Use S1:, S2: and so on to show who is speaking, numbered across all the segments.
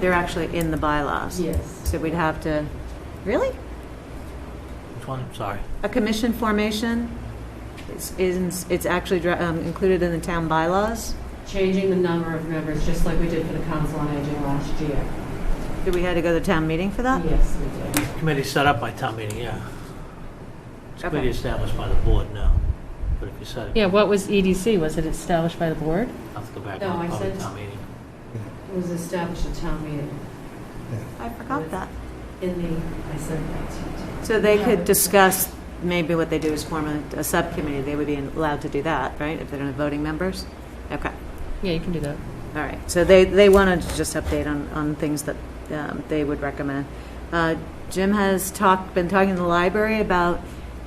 S1: They're actually in the bylaws.
S2: Yes.
S1: So we'd have to, really?
S3: Which one? Sorry.
S1: A commission formation is, is- it's actually dra- um, included in the town bylaws?
S2: Changing the number of members, just like we did for the Council on Aging last year.
S1: Did we had to go to town meeting for that?
S2: Yes, we did.
S3: Committee set up by town meeting, yeah. It's a committee
S1: Okay.
S3: established by the board now. But if you set it,
S4: Yeah, what was EDC? Was it established by the board?
S3: I'll have to go back
S2: No, I
S3: to public
S2: said-
S3: town meeting.
S2: It was established at town meeting
S1: I forgot that.
S2: in the, I said that to
S1: So they could discuss, maybe what they do is form a, a subcommittee, they would be allowed to do that, right, if they don't have voting members? Okay,
S4: Yeah, you can do that.
S1: all right, so they, they wanted to just update on, on things that um, they would recommend. Uh, Jim has talked, been talking to the library about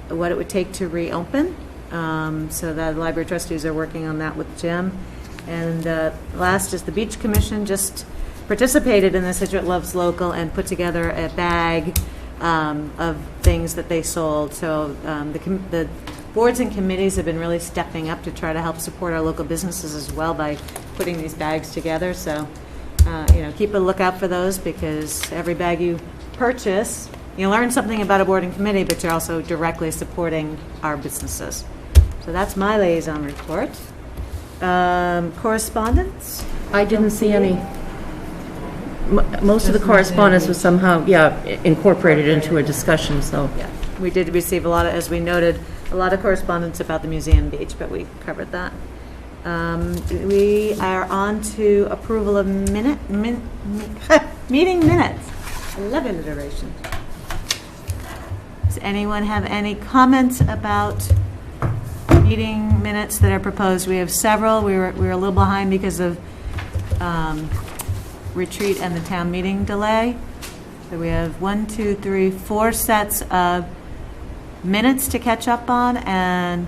S1: what it would take to reopen, Um, so the library trustees are working on that with Jim. And uh, last is the Beach Commission just participated in the Situate Loves Local and put together a bag um, of things that they sold. So um, the com- the boards and committees have been really stepping up to try to help support our local businesses as well by putting these bags together. So, uh, you know, keep a lookout for those because every bag you purchase, you learn something about a board and committee, but you're also directly supporting our businesses. So that's my liaison report. Um, Correspondence?
S5: I didn't see any. Mo- Most of the correspondence was somehow, yeah, incorporated into a discussion, so.
S1: Yeah, we did receive a lot of, as we noted, a lot of correspondence about the museum beach, but we covered that. Um, We are on to approval of minute, min, meeting minutes. I love alliteration. Does anyone have any comments about meeting minutes that are proposed? We have several. We were, we were a little behind because of um, retreat and the town meeting delay. So we have one, two, three, four sets of minutes to catch up on and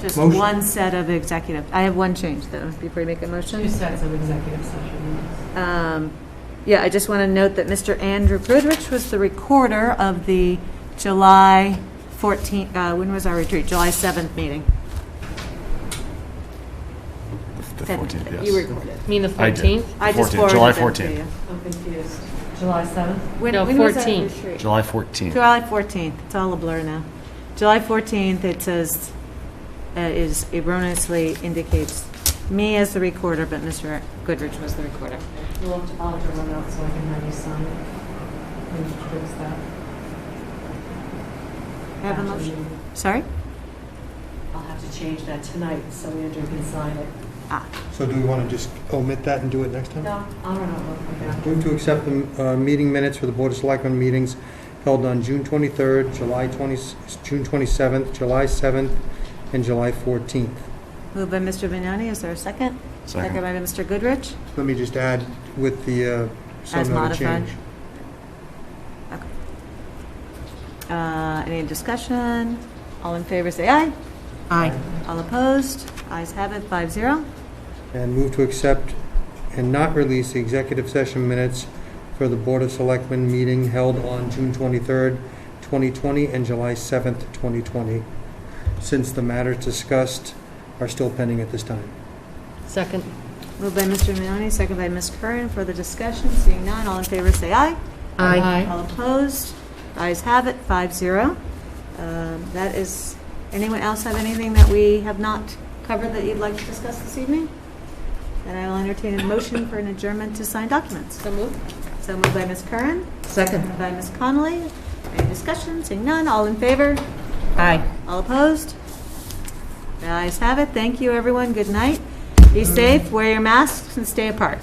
S1: just
S6: Motion.
S1: one set of executive. I have one change though, before you make a
S2: you. Two
S1: motion.
S2: sets of executive session minutes.
S1: Um, Yeah, I just want to note that Mr. Andrew Goodrich was the recorder of the July 14, uh, when was our retreat? July 7th meeting.
S7: The
S1: That
S7: 14th, yes.
S1: You recorded.
S4: You mean the
S7: I did.
S4: 14th?
S1: I just
S7: 14th,
S1: forwarded
S7: July
S1: that to
S7: 14th.
S1: you.
S2: I'm confused. July 7th?
S1: When-
S4: No,
S1: when was that
S4: 14th.
S1: retreat?
S7: July 14th.
S1: July 14th, it's all a blur now. July 14th, it says, uh, is erroneously indicates me as the recorder, but Mr. Goodrich was the recorder.
S2: We'll have to alter one out so I can have you sign it. When you fix that.
S1: Have a
S2: Actually,
S1: motion? Sorry?
S2: I'll have to change that tonight so Andrew can sign it.
S1: Ah,
S6: So do we want to just omit that and do it next time?
S2: No, I don't know. Okay.
S6: Move to accept the uh, meeting minutes for the Board of Selectmen meetings held on June 23rd, July 20, June 27th, July 7th, and July 14th.
S1: moved by Mr. Vignani, is there a second? Second
S7: Second.
S1: by Mr. Goodrich.
S6: Let me just add with the, uh,
S1: As
S6: some noted
S1: modified.
S6: change.
S1: Uh, Any discussion? All in favor, say aye.
S5: Aye.
S1: All opposed? Ayes have it, five zero.
S6: And move to accept and not release the executive session minutes for the Board of Selectmen meeting held on June 23rd, 2020, and July 7th, 2020, since the matters discussed are still pending at this time.
S4: Second.
S1: Moved by Mr. Vignani, second by Ms. Curran. Further discussion, seeing none, all in favor, say aye.
S5: Aye.
S1: All opposed? Ayes have it, five zero. Um, That is, anyone else have anything that we have not covered that you'd like to discuss this evening? Then I will entertain a motion for an adjournment to sign documents.
S4: So moved.
S1: So moved by Ms. Curran,
S5: Second.
S1: by Ms. Connolly. Any discussion? Seeing none, all in favor?
S5: Aye.
S1: All opposed? The ayes have it. Thank you, everyone. Good night. Be safe, wear your masks, and stay apart.